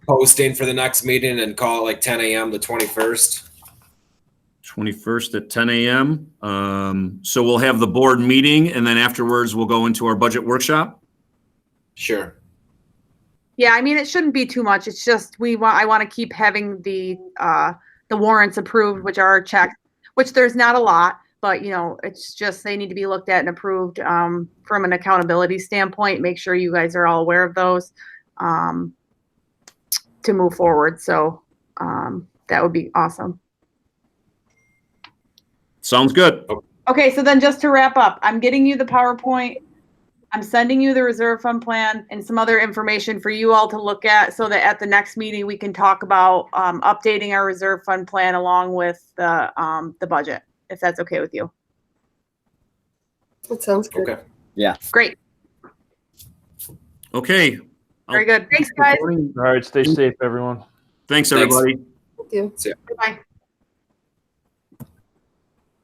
posting for the next meeting and call it like ten AM the twenty-first. 21st at 10 a.m. Um, So we'll have the board meeting and then afterwards we'll go into our budget workshop. Sure. Yeah, I mean, it shouldn't be too much. It's just we want, I want to keep having the, uh, the warrants approved, which are checked, which there's not a lot, but you know, it's just, they need to be looked at and approved, um, from an accountability standpoint. Make sure you guys are all aware of those, um, to move forward. So, um, that would be awesome. Sounds good. Okay, so then just to wrap up, I'm getting you the PowerPoint. I'm sending you the reserve fund plan and some other information for you all to look at so that at the next meeting, we can talk about um, updating our reserve fund plan along with the, um, the budget, if that's okay with you. That sounds good. Okay. Great, Okay. very good. Thanks, guys. All right, stay safe, everyone. Thanks, Thanks. everybody. Thank you. Bye.